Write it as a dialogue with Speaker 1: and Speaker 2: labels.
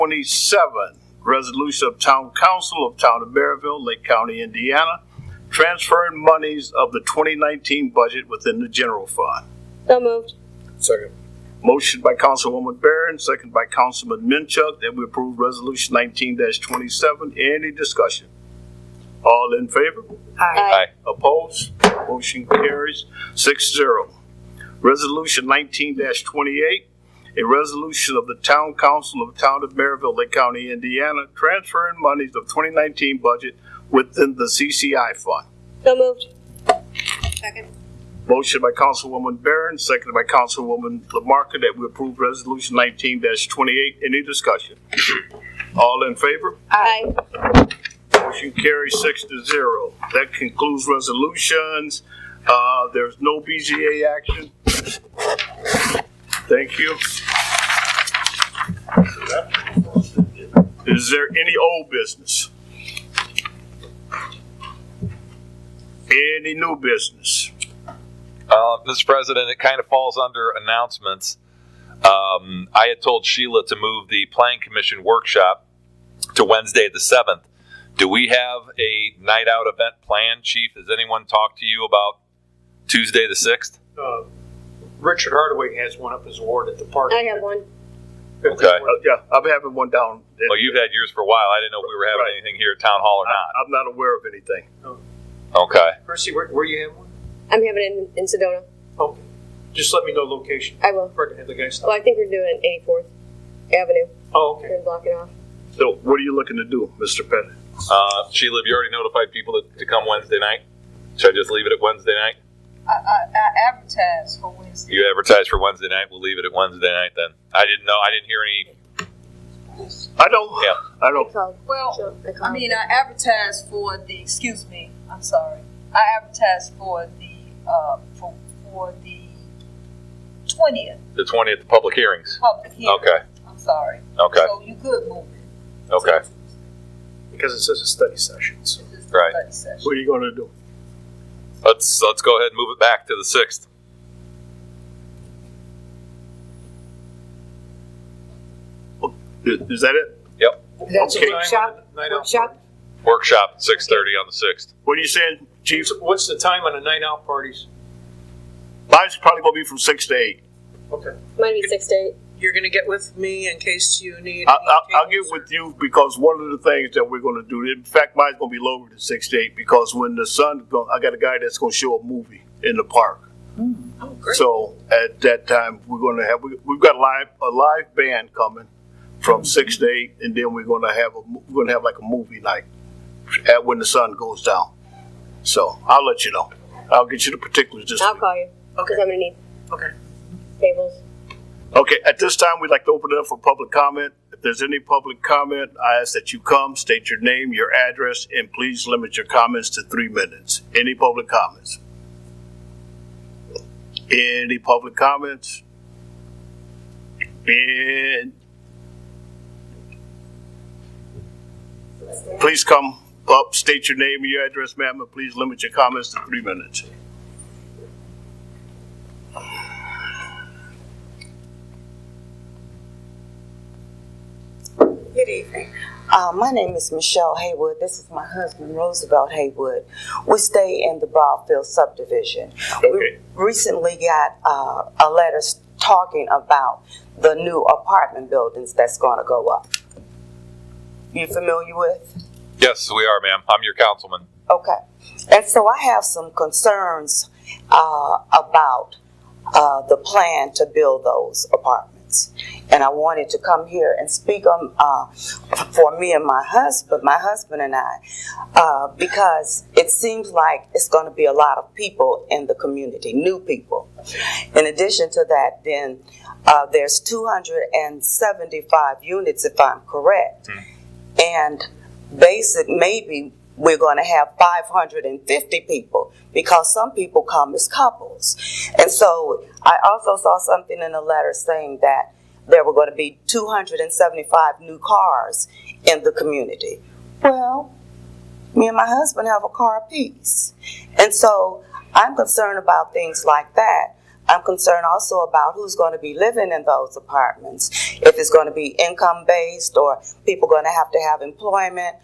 Speaker 1: 27, resolution of Town Council of Town of Maryville, Lake County, Indiana, transferring monies of the 2019 budget within the general fund.
Speaker 2: So moved.
Speaker 3: Second.
Speaker 1: Motion by Councilwoman Barron, second by Councilman Minchuk, that we approve Resolution 19-27. Any discussion? All in favor?
Speaker 2: Aye.
Speaker 1: Opposed? Motion carries six zero. Resolution nineteen twenty-eight, a resolution of the Town Council of the Town of Maryville, Lake County, Indiana, transferring monies of twenty nineteen budget within the CCI fund.
Speaker 2: So moved.
Speaker 1: Motion by Councilwoman Barron, seconded by Councilwoman Lamarcus, that we approve Resolution nineteen twenty-eight. Any discussion? All in favor?
Speaker 2: Aye.
Speaker 1: Motion carries six to zero. That concludes resolutions. Uh, there's no BZA action. Thank you. Is there any old business? Any new business?
Speaker 4: Uh, Mr. President, it kind of falls under announcements. Um, I had told Sheila to move the Plan Commission workshop to Wednesday the 7th. Do we have a night out event planned, Chief? Has anyone talked to you about Tuesday the 6th?
Speaker 3: Uh, Richard Hardaway has one up his ward at the park.
Speaker 2: I have one.
Speaker 4: Okay.
Speaker 1: Uh, yeah, I'm having one down.
Speaker 4: Well, Oh, you've had yours for a while. I didn't know if we were having
Speaker 1: Right.
Speaker 4: anything here at Town Hall or not.
Speaker 1: I- I'm not aware of anything.
Speaker 4: Okay.
Speaker 3: Percy, where, where you have one?
Speaker 2: I'm having it in, in Sedona.
Speaker 3: Oh, just let me know location.
Speaker 2: I will.
Speaker 3: Or have the guy stop.
Speaker 2: Well, I think we're doing it in 84th Avenue.
Speaker 3: Oh,
Speaker 2: We're
Speaker 3: okay.
Speaker 2: going to block it off.
Speaker 1: So what are you looking to do, Mr. Pettit?
Speaker 4: Uh, Sheila, have you already notified people to, to come Wednesday night? Should I just leave it at Wednesday night?
Speaker 5: I, I, I advertised for Wednesday.
Speaker 4: You advertise for Wednesday night. We'll leave it at Wednesday night then. I didn't know. I didn't hear any.
Speaker 1: I don't,
Speaker 4: Yeah.
Speaker 1: I don't,
Speaker 2: Called.
Speaker 5: Well,
Speaker 2: So, I, called.
Speaker 5: I mean, I advertised for the, excuse me, I'm sorry. I advertised for the, uh, for, for the twentieth
Speaker 4: The 20th public hearings.
Speaker 5: public hearing.
Speaker 4: Okay.
Speaker 5: I'm sorry.
Speaker 4: Okay.
Speaker 5: So you could move it.
Speaker 4: Okay.
Speaker 3: Because it says a study session, so.
Speaker 5: to this
Speaker 4: Right.
Speaker 5: study session.
Speaker 1: what are you gonna do?
Speaker 4: Let's let's go ahead and move it back to the sixth.
Speaker 1: Is is that it?
Speaker 6: That's
Speaker 1: Okay.
Speaker 6: a workshop,
Speaker 3: Night out.
Speaker 6: workshop,
Speaker 4: Workshop at 6:30 on the sixth.
Speaker 1: What are you saying, Chief?
Speaker 3: Chiefs, what's the time on the night out parties?
Speaker 1: Mine's probably gonna be from six to eight.
Speaker 3: Okay.
Speaker 2: Might be 6 to 8.
Speaker 6: you're gonna get with me in case you need.
Speaker 1: I, I, I'll
Speaker 6: any
Speaker 1: get
Speaker 6: tables
Speaker 1: with you because one of the things that we're gonna do, in fact, mine's gonna be lower than six to eight because when the sun, go- I got a guy that's gonna show a movie in the park.
Speaker 6: or- Oh, great.
Speaker 1: So at that time, we're gonna have, we, we've got live, a live band coming from six to eight and then we're gonna have a, mo- we're gonna have like a movie night at when the sun goes down. So I'll let you know. I'll get you the particulars this
Speaker 2: I'll
Speaker 1: week.
Speaker 2: call you because
Speaker 6: Okay,
Speaker 2: I'm going to need
Speaker 6: okay.
Speaker 2: tables.
Speaker 1: Okay, at this time, we'd like to open it up for public comment. If there's any public comment, I ask that you come, state your name, your address, and please limit your comments to three minutes. Any public comments? Any public comments? And please come up, state your name and your address, ma'am, and please limit your comments to three minutes.
Speaker 7: Good evening. Uh, my name is Michelle Haywood. This is my husband, Roosevelt Haywood. We stay in the Broadfield subdivision.
Speaker 1: Okay.
Speaker 7: We recently got uh, a letter s- talking about the new apartment buildings that's going to go up. You familiar with?
Speaker 4: Yes, we are, ma'am. I'm your councilman.
Speaker 7: Okay. And so I have some concerns uh, about uh, the plan to build those apartments. And I wanted to come here and speak on, uh, for me and my husband, my husband and I, uh, because it seems like it's going to be a lot of people in the community, new people. In addition to that, then uh, there's 275 units, if I'm correct. And basic, maybe we're going to have 550 people because some people come as couples. And so I also saw something in the letter saying that there were going to be 275 new cars in the community. Well, me and my husband have a car apiece. And so I'm concerned about things like that. I'm concerned also about who's going to be living in those apartments. If it's going to be income based or people going to have to have employment